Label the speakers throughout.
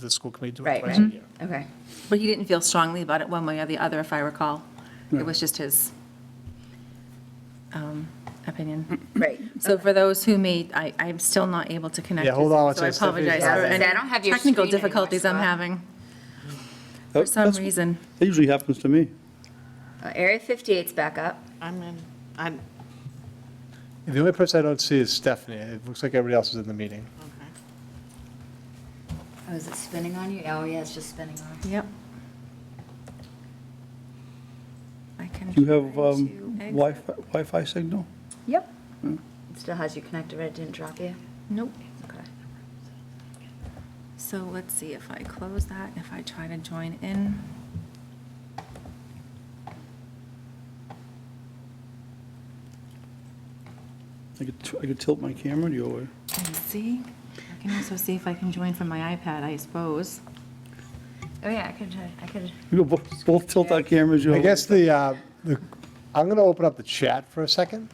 Speaker 1: The school committee do it
Speaker 2: Right,
Speaker 1: twice
Speaker 2: right.
Speaker 1: a year.
Speaker 2: Okay.
Speaker 3: But he didn't feel strongly about it one way or the other, if I recall. It was just his um, opinion.
Speaker 2: Right.
Speaker 3: So for those who may, I, I'm still not able to connect.
Speaker 1: Yeah, hold
Speaker 3: with
Speaker 1: on
Speaker 3: him,
Speaker 1: one
Speaker 3: So I
Speaker 1: second, Stephanie.
Speaker 3: apologize
Speaker 2: Yeah, I was
Speaker 3: for
Speaker 2: gonna
Speaker 3: any
Speaker 2: say, I don't have your
Speaker 3: technical
Speaker 2: screen anymore,
Speaker 3: difficulties I'm
Speaker 2: Scott.
Speaker 3: having.
Speaker 1: Oh,
Speaker 4: For
Speaker 3: some reason.
Speaker 4: That usually happens to me.
Speaker 2: Uh, Area 58's back up.
Speaker 5: I'm in, I'm,
Speaker 1: The only person I don't see is Stephanie. It looks like everybody else is in the meeting.
Speaker 5: okay.
Speaker 2: Oh, is it spinning on you? Oh, yeah, it's just spinning on.
Speaker 3: Yep. I can.
Speaker 4: Do you have
Speaker 3: try
Speaker 4: um,
Speaker 3: to exit.
Speaker 4: Wi-Fi Wi-Fi signal?
Speaker 2: Yep. It still has your connector, but it didn't drop you?
Speaker 3: Nope.
Speaker 2: Okay.
Speaker 3: So let's see if I close that, if I try to join in.
Speaker 4: I could t- I could tilt my camera the other way.
Speaker 3: and see. I can also see if I can join from my iPad, I suppose.
Speaker 2: Oh, yeah, I could, try- I could.
Speaker 4: We could both both tilt our cameras the
Speaker 1: I
Speaker 4: other
Speaker 1: guess
Speaker 4: way.
Speaker 1: the, uh, the- I'm going to open up the chat for a second.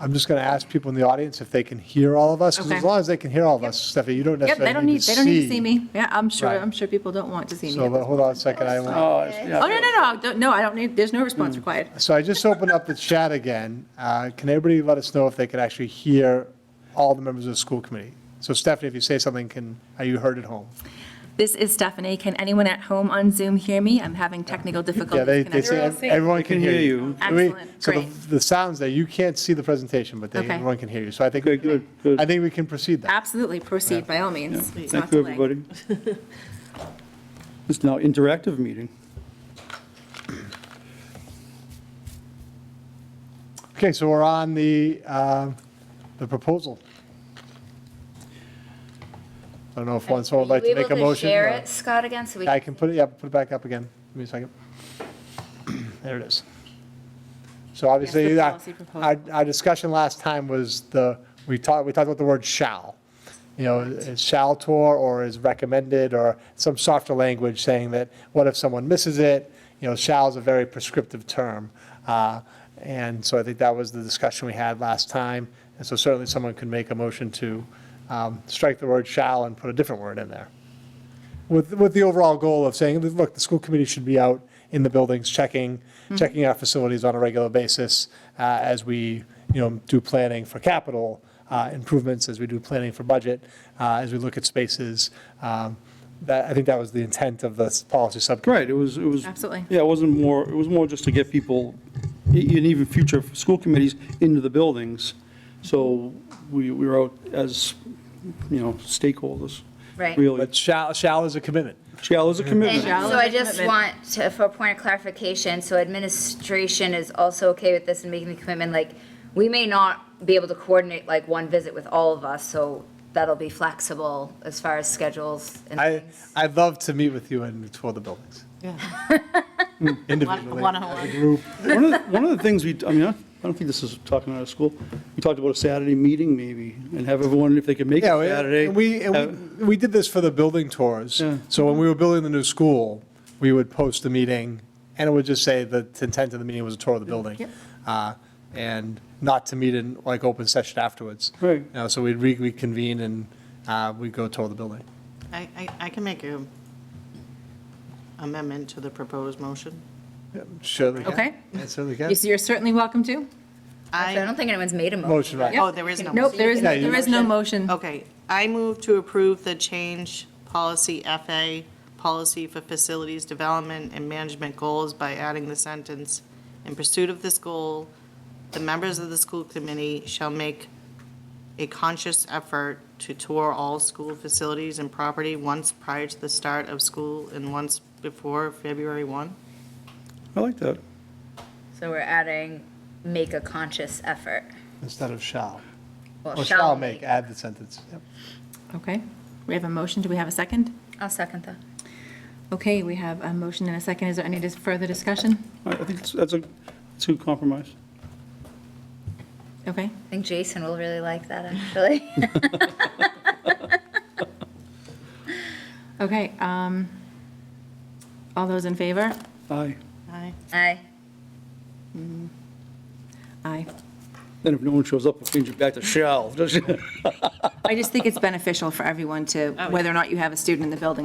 Speaker 1: I'm just going to ask people in the audience if they can hear all of us, 'cause as
Speaker 3: Okay.
Speaker 1: long as they can hear all of us, Stephanie, you don't
Speaker 3: Yep, they
Speaker 1: necessarily
Speaker 3: don't need, they don't need to see me. Yeah, I'm sure,
Speaker 1: Right.
Speaker 3: I'm sure people don't want to see me.
Speaker 1: So but hold on a second. I won't-
Speaker 4: Oh, it's- yeah.
Speaker 3: Oh, no, no, no, I don't- no, I don't need, there's no
Speaker 1: Hmm.
Speaker 3: response required.
Speaker 1: So I just opened up the chat again. Uh, Can everybody let us know if they could actually hear all the members of the school committee? So Stephanie, if you say something, can, are you heard at home?
Speaker 3: This is Stephanie. Can anyone at home on Zoom hear me? I'm having technical difficulties.
Speaker 1: Yeah, they, they
Speaker 3: connecting.
Speaker 1: say ev- everyone can hear you.
Speaker 3: you.
Speaker 1: We-
Speaker 3: Excellent,
Speaker 1: So the,
Speaker 3: great.
Speaker 1: the sounds there, you can't see the presentation, but they,
Speaker 3: Okay.
Speaker 1: everyone can hear you. So I think,
Speaker 4: Okay, good, good.
Speaker 1: I think we can proceed that.
Speaker 3: Absolutely, proceed by all means. It's
Speaker 4: Thank
Speaker 3: not
Speaker 4: you,
Speaker 3: delayed.
Speaker 4: everybody. It's now interactive meeting.
Speaker 1: Okay, so we're on the, um, the proposal. I don't know if one, someone would like to make a
Speaker 2: Are you able to
Speaker 1: motion.
Speaker 2: share
Speaker 1: or-
Speaker 2: it, Scott, again, so we?
Speaker 1: I can put it, yeah, put it back up again. Give me a second. There it is. So obviously,
Speaker 3: the
Speaker 1: our,
Speaker 3: policy proposal.
Speaker 1: our our discussion last time was the, we talked, we talked about the word shall. You know, is shall tour or is recommended or some softer language saying that, what if someone misses it? You know, shall is a very prescriptive term. Uh, And so I think that was the discussion we had last time. And so certainly someone could make a motion to um, strike the word shall and put a different word in there with, with the overall goal of saying, look, the school committee should be out in the buildings, checking, checking our facilities on a regular basis uh, as we, you know, do planning for capital uh, improvements, as we do planning for budget, uh, as we look at spaces. Um, That, I think that was the intent of the policy subcommittee.
Speaker 4: Right, it was, it was.
Speaker 3: Absolutely.
Speaker 4: Yeah, it wasn't more, it was more just to get people, e- and even future school committees, into the buildings. So we we were out as, you know, stakeholders.
Speaker 2: Right.
Speaker 4: Really.
Speaker 1: But shall, shall is a commitment.
Speaker 4: Shall is a
Speaker 2: And
Speaker 4: commitment.
Speaker 3: Shall
Speaker 2: so
Speaker 3: is
Speaker 2: I
Speaker 3: a
Speaker 2: just
Speaker 3: commitment.
Speaker 2: want to, for a point of clarification, so administration is also okay with this and making the commitment, like, we may not be able to coordinate like one visit with all of us, so that'll be flexible as far as schedules and
Speaker 1: I,
Speaker 2: things.
Speaker 1: I'd love to meet with you and tour the buildings
Speaker 5: Yeah.
Speaker 1: individually.
Speaker 5: One- one-on-one.
Speaker 1: as a Group.
Speaker 4: One of, the- one of the things we, I mean, I I don't think this is talking out of school. We talked about a Saturday meeting maybe and have everyone, if they could make it
Speaker 1: Yeah, we-
Speaker 4: Saturday.
Speaker 1: and we,
Speaker 4: have-
Speaker 1: and we, we did this for the building tours.
Speaker 4: Yeah.
Speaker 1: So when we were building the new school, we would post the meeting, and it would just say the intent of the meeting was a tour of the building. uh, And not to meet in like open session afterwards.
Speaker 4: Right.
Speaker 1: You know, so we'd re- reconvene and uh, we'd go tour the building.
Speaker 5: I, I, I can make a amendment to the proposed motion.
Speaker 1: Surely. can.
Speaker 3: Okay.
Speaker 1: Yeah, Certainly can.
Speaker 3: You- You're certainly welcome to.
Speaker 2: So I don't think anyone's made a
Speaker 1: Motion,
Speaker 2: motion.
Speaker 1: right.
Speaker 5: Oh, there is no. Oh.
Speaker 3: Nope, there is, no-
Speaker 1: Yeah, you-
Speaker 3: there is no motion.
Speaker 5: Okay, I move to approve the change policy FA, policy for facilities development and management goals by adding the sentence, in pursuit of this goal, the members of the school committee shall make a conscious effort to tour all school facilities and property once prior to the start of school and once before February 1.
Speaker 4: I like that.
Speaker 2: So we're adding, make a conscious effort.
Speaker 1: Instead of shall.
Speaker 2: Well,
Speaker 1: Or shall make, add the sentence. Yep.
Speaker 3: Okay. We have a motion. Do we have a second?
Speaker 2: I'll second that.
Speaker 3: Okay, we have a motion and a second. Is there any dis- further discussion?
Speaker 4: I I think that's- that's a, that's a good compromise.
Speaker 3: Okay.
Speaker 2: I think Jason will really like that, actually.
Speaker 3: Okay, um, all those in favor?
Speaker 4: Aye.
Speaker 5: Aye.
Speaker 2: Aye.
Speaker 3: Aye.
Speaker 4: Then if no one shows up, we'll change it back to shall.
Speaker 3: I just think it's beneficial for everyone to, whether or not you have a student in the building,